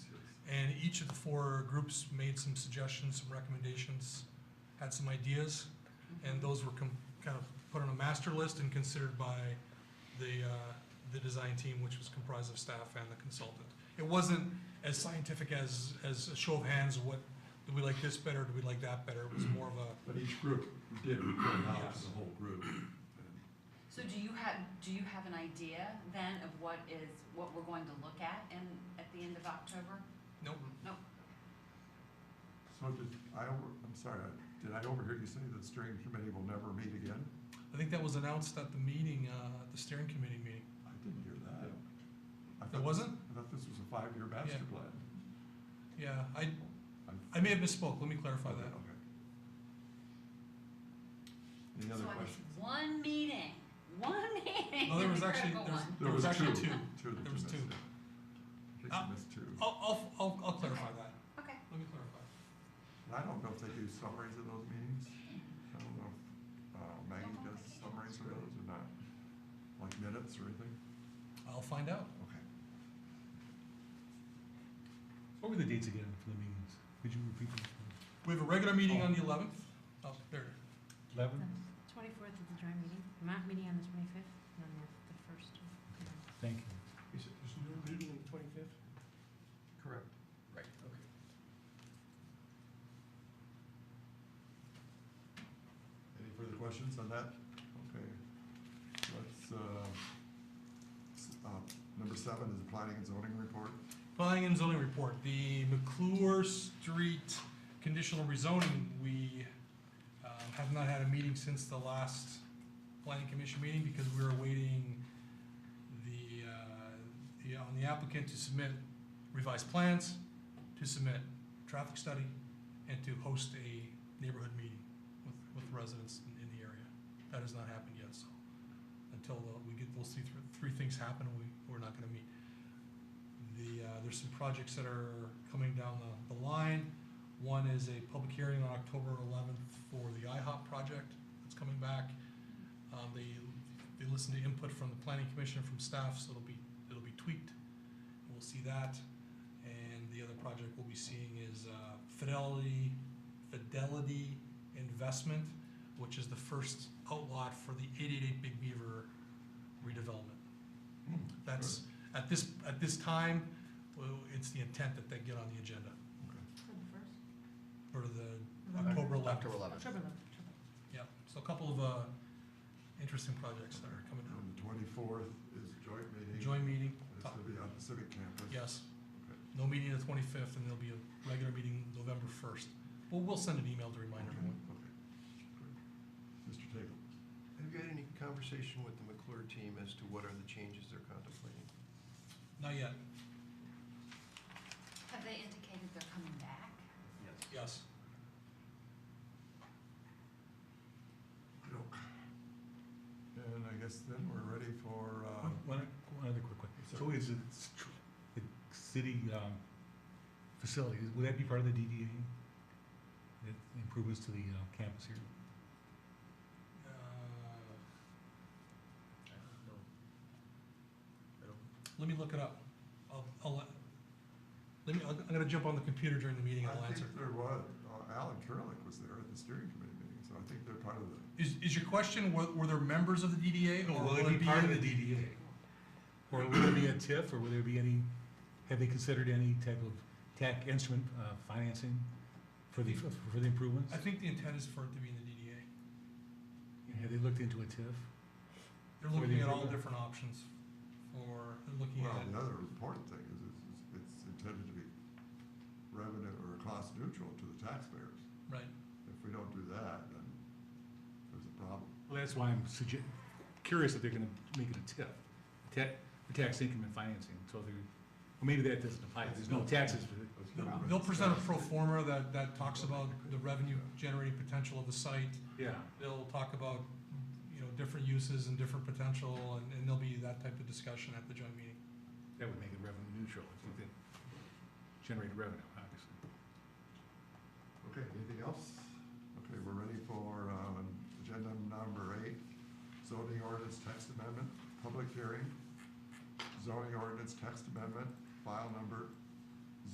each of the four groups made some suggestions, some recommendations, had some ideas, and those were com- kind of put on a master list and considered by the, uh, the design team, which was comprised of staff and the consultant. It wasn't as scientific as, as a show of hands, what, do we like this better, do we like that better? It was more of a, But each group did report out to the whole group. So do you have, do you have an idea then of what is, what we're going to look at in, at the end of October? nope, So did, I, over- I'm sorry, I- did I overhear you say that steering committee will never meet again? I think that was announced at the meeting, uh, at the steering committee meeting. I didn't hear that. I thought It this- wasn't? I thought this was a five-year master Yeah. plan. Yeah, I, I'm- I may have misspoke, let me clarify Okay, that. okay. Any other questions? So I missed one meeting, one meeting, No, Oh, there was the actually, critical there was, one. there was actually two. Two that you There was missed. two. yeah. I Uh, think you missed two. I'll, I'll, I'll, I'll clarify that. Okay, Let me clarify. And I don't know if they do summaries of those meetings. I don't know if uh, Maggie does summaries of those or not, like minutes or anything. I'll find out. Okay. What were the dates again for the meetings? Could you repeat them? We have a regular meeting on the eleventh. Oh, there. Eleven? Twenty-fourth is the dry meeting, not meeting on the twenty-fifth, and then the first. Thank you. Is it, is no meeting on the twenty-fifth? Correct. Right. Okay. Any further questions on that? Okay. Let's, uh, s- uh, number seven is the planning and zoning report. Planning and zoning report, the McClure Street conditional rezoning, we um, have not had a meeting since the last planning commission meeting because we were awaiting the, uh, the- on the applicant to submit revised plans, to submit traffic study, and to host a neighborhood meeting with, with residents in- in the area. That has not happened yet, so until uh, we get those three, three things happen, we, we're not gonna meet the, uh, there's some projects that are coming down the, the line. One is a public hearing on October eleventh for the IHOP project that's coming back. Um, they, they listened to input from the planning commission, from staff, so it'll be, it'll be tweaked. We'll see that. And the other project we'll be seeing is, uh, Fidelity, Fidelity Investment, which is the first outlot for the eight-eight-eight Big Beaver redevelopment. Hmm, That's, at this, at this time, well, it's the intent that they get on the agenda For the first? for the Mm-hmm. October eleventh. October eleventh, October. Yeah, so a couple of, uh, interesting projects that are coming down. And the twenty-fourth is joint meeting. Joint meeting, It's gonna be on the civic campus. yes. Okay. No meeting the twenty-fifth, and there'll be a regular meeting November first. Well, we'll send an email to remind Okay, everyone. okay. Great. Mr. Tagle, Have you had any conversation with the McClure team as to what are the changes they're contemplating? Not yet, have they indicated they're coming back? Yes. yes. Nope. And I guess then we're ready for, uh, One, one other quick one. So Sorry. is it, s- tr- the city, um, facilities, would that be part of the DDA? The Improvements to the uh, campus here? Uh, Let me look it up. I'll, I'll, let me, I'm I'm gonna jump on the computer during the meeting and I'll I answer. think there was, uh, Alan Kerlick was there at the steering committee meeting, so I think they're part of the, Is, is your question, were, were there members of the DDA? or will it be- DDA? Or would there be a TIF, or would there be any, have they considered any type of tech instrument, uh, financing for the, for the improvements? I think the intent is for it to be in the DDA. Have they looked into a TIF? They're For the looking at all improvement? different options for, they're looking well, the at, other important thing is it's- it's intended to be revenue or cost neutral to the taxpayers. right. If we don't do that, then there's a problem. Well, that's why I'm sugge- curious if they're gonna make it a TIF, ta- for tax income and financing, so they're, well, maybe that doesn't apply, there's no taxes for it. Let's They'll- go with They'll the present a status. pro forma that, that talks about the revenue generating potential of the site. Yeah, They'll talk about, you know, different uses and different potential, and, and there'll be that type of discussion at the joint meeting. that would make it revenue neutral, if they generated revenue, obviously. Okay, anything else? Okay, we're ready for, um, agenda number eight, zoning ordinance text amendment, public hearing. Zoning ordinance text amendment, file number